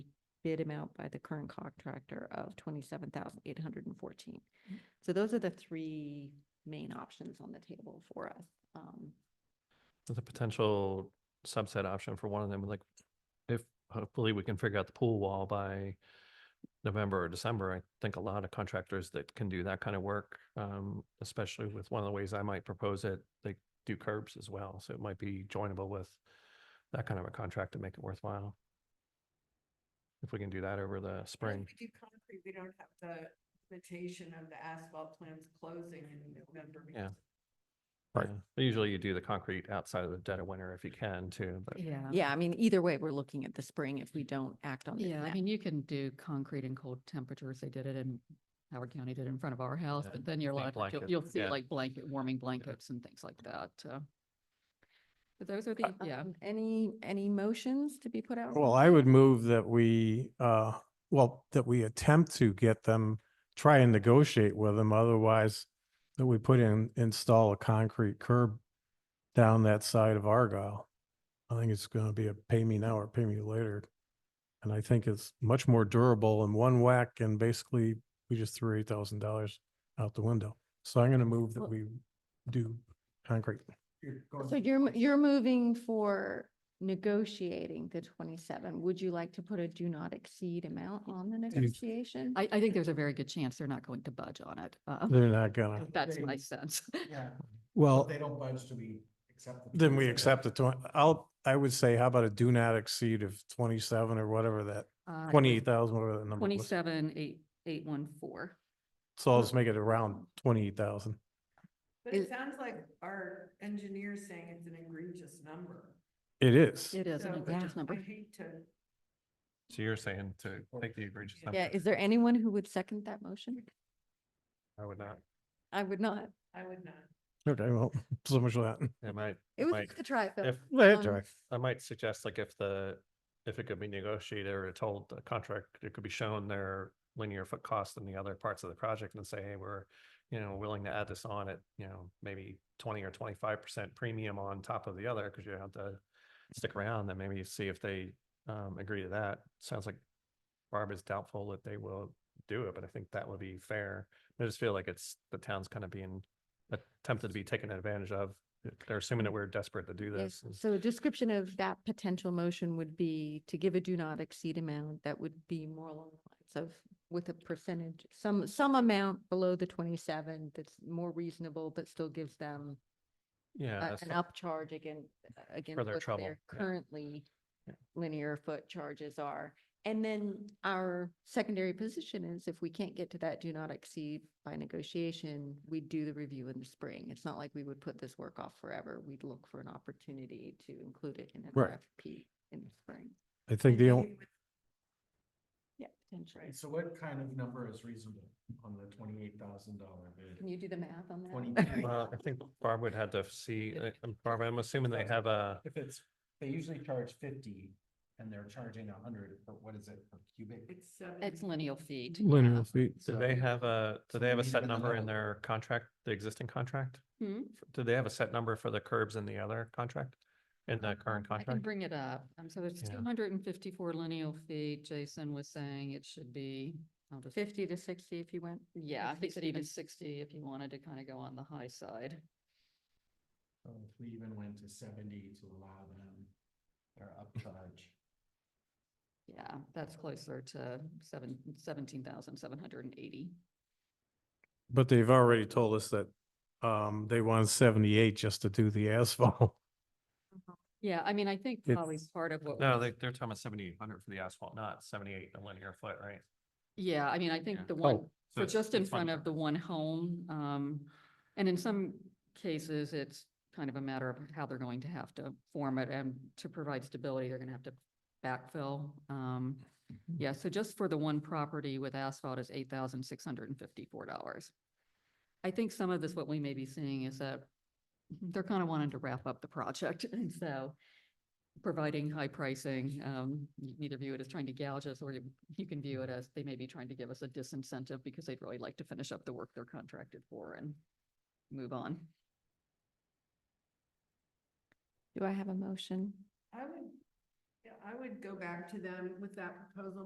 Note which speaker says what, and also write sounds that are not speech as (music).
Speaker 1: bid amount by the current contractor of twenty-seven thousand eight hundred and fourteen. So those are the three main options on the table for us. Um,
Speaker 2: The potential subset option for one of them, like if hopefully we can figure out the pool wall by November or December, I think a lot of contractors that can do that kind of work, um, especially with one of the ways I might propose it, they do curbs as well. So it might be joinable with that kind of a contract to make it worthwhile. If we can do that over the
Speaker 3: Well,
Speaker 2: spring.
Speaker 3: If we do concrete, we don't have the limitation of the asphalt plants closing in November.
Speaker 2: Yeah.
Speaker 3: because
Speaker 4: Right.
Speaker 2: Yeah. Usually you do the concrete outside of the dead of winter if you can too, but
Speaker 5: Yeah.
Speaker 1: yeah, I mean, either way, we're looking at the spring if we don't act on it.
Speaker 5: Yeah, I
Speaker 1: now.
Speaker 5: mean, you can do concrete in cold temperatures. They did it in Howard County, did it in front of our house,
Speaker 2: Yeah,
Speaker 5: but then you're
Speaker 2: big
Speaker 5: like, you'll,
Speaker 2: blanket,
Speaker 5: you'll see
Speaker 2: yeah.
Speaker 5: like blanket, warming blankets and things like that. uh, But those are the, yeah.
Speaker 1: Um, Any, any motions to be put out?
Speaker 4: Well, I would move that we, uh, well, that we attempt to get them, try and negotiate with them, otherwise that we put in, install a concrete curb down that side of Argyle. I think it's gonna be a pay me now or pay me later. And I think it's much more durable in one whack and basically we just threw eight thousand dollars out the window. So I'm gonna move that
Speaker 1: Well-
Speaker 4: we do concrete.
Speaker 1: So you're, mo- you're moving for negotiating the twenty-seven. Would you like to put a do not exceed amount on the negotiation?
Speaker 5: I, I think there's a very good chance they're not going to budge on it. uh,
Speaker 4: They're not gonna,
Speaker 5: That's
Speaker 6: They-
Speaker 5: my sense. (laughs)
Speaker 6: Yeah,
Speaker 4: well.
Speaker 6: if they don't budge, do we accept? the
Speaker 4: Then we
Speaker 6: 27?
Speaker 4: accept the twenty, I'll, I would say, how about a do not exceed of twenty-seven or whatever that,
Speaker 5: Uh,
Speaker 4: twenty-eight thousand, whatever that number was.
Speaker 5: Twenty-seven, eight, eight, one, four.
Speaker 4: So I'll just make it around twenty-eight thousand.
Speaker 3: But it
Speaker 1: Is-
Speaker 3: sounds like our engineer's saying it's an egregious number.
Speaker 4: It is.
Speaker 5: It is an
Speaker 3: So,
Speaker 5: egregious
Speaker 1: yeah.
Speaker 3: I
Speaker 5: number.
Speaker 3: hate to.
Speaker 2: so you're saying to take the egregious.
Speaker 1: Yeah,
Speaker 2: number.
Speaker 1: is there anyone who would second that motion?
Speaker 2: I would not.
Speaker 1: I would not.
Speaker 3: I would not.
Speaker 4: Okay, well, (laughs) so much for that.
Speaker 2: It might.
Speaker 1: It was
Speaker 2: might-
Speaker 1: just a try, Phil.
Speaker 2: If,
Speaker 4: Let it
Speaker 1: Um,
Speaker 4: dry.
Speaker 2: I might suggest like if the, if it could be negotiated or told the contract, it could be shown their linear foot cost in the other parts of the project and say, hey, we're, you know, willing to add this on at, you know, maybe twenty or twenty-five percent premium on top of the other, because you have to stick around, then maybe see if they um agree to that. Sounds like Barb is doubtful that they will do it, but I think that would be fair. I just feel like it's, the town's kind of being attempted to be taken advantage of. They're assuming that we're desperate to do
Speaker 1: Yes,
Speaker 2: this. and-
Speaker 1: So a description of that potential motion would be to give a do not exceed amount that would be more along the lines of with a percentage, some, some amount below the twenty-seven that's more reasonable, but still gives them
Speaker 5: Uh,
Speaker 2: Yeah,
Speaker 1: a-
Speaker 2: that's
Speaker 1: an
Speaker 2: not-
Speaker 1: upcharge again, uh, against
Speaker 2: further
Speaker 1: what
Speaker 2: trouble,
Speaker 1: their
Speaker 2: yeah.
Speaker 1: currently
Speaker 2: Yeah.
Speaker 1: linear foot charges are. And then our secondary position is if we can't get to that do not exceed by negotiation, we do the review in the spring. It's not like we would put this work off forever. We'd look for an opportunity to include it in an
Speaker 4: Right.
Speaker 1: RFP in the spring.
Speaker 4: I think the only,
Speaker 3: Maybe with-
Speaker 1: Yeah, potentially.
Speaker 6: Right, so what kind of number is reasonable on the twenty-eight thousand dollar
Speaker 1: Can
Speaker 6: bid?
Speaker 1: you do the math on that?
Speaker 6: 23.
Speaker 2: Well, I think Barb would have to see,
Speaker 5: Yeah.
Speaker 2: uh, Barb, I'm assuming they have a,
Speaker 6: If it's, they usually charge fifty and they're charging a hundred, for what is it, per cubic?
Speaker 3: It's seven.
Speaker 5: It's lineal feet.
Speaker 4: linear feet,
Speaker 2: do they have a, do
Speaker 6: So
Speaker 2: they have a
Speaker 6: we need
Speaker 2: set
Speaker 6: another
Speaker 2: number in
Speaker 6: level.
Speaker 2: their contract, the existing contract?
Speaker 5: Hmm?
Speaker 2: F- Do they have a set number for the curbs in the other contract, in the current
Speaker 5: I can
Speaker 2: contract?
Speaker 5: bring it up. Um, so it's
Speaker 2: Yeah.
Speaker 5: two hundred and fifty-four lineal feet. Jason was saying it should be, I'll just,
Speaker 1: Fifty to sixty if you went.
Speaker 5: yeah, he said
Speaker 1: 60
Speaker 5: even
Speaker 1: to-
Speaker 5: sixty if you wanted to kind of go on the high side.
Speaker 6: So If we even went to seventy to allow them their upcharge.
Speaker 5: Yeah, that's closer to seven, seventeen thousand seven hundred and eighty.
Speaker 4: but they've already told us that, um, they want seventy-eight just to do the asphalt.
Speaker 5: Yeah, I mean, I think probably
Speaker 4: It's-
Speaker 5: part of what.
Speaker 2: No,
Speaker 5: we-
Speaker 2: they, they're talking about seventy-eight hundred for the asphalt, not seventy-eight a linear foot, right?
Speaker 5: Yeah, I mean, I think
Speaker 2: Yeah.
Speaker 5: the one,
Speaker 4: Oh.
Speaker 5: so
Speaker 2: it's-
Speaker 5: just in
Speaker 2: it's one
Speaker 5: front of
Speaker 2: per-
Speaker 5: the one home, um, and in some cases, it's kind of a matter of how they're going to have to form it and to provide stability, they're gonna have to backfill. Um,
Speaker 2: Mm-hmm.
Speaker 5: yeah, so just for the one property with asphalt is eight thousand six hundred and fifty-four dollars. I think some of this, what we may be seeing is that they're kind of wanting to wrap up the project, (laughs) and so providing high pricing, um, you can either view it as trying to gouge us, or you, you can view it as they may be trying to give us a disincentive because they'd really like to finish up the work they're contracted for and move on.
Speaker 1: Do I have a motion?
Speaker 3: I would, yeah, I would go back to them with that proposal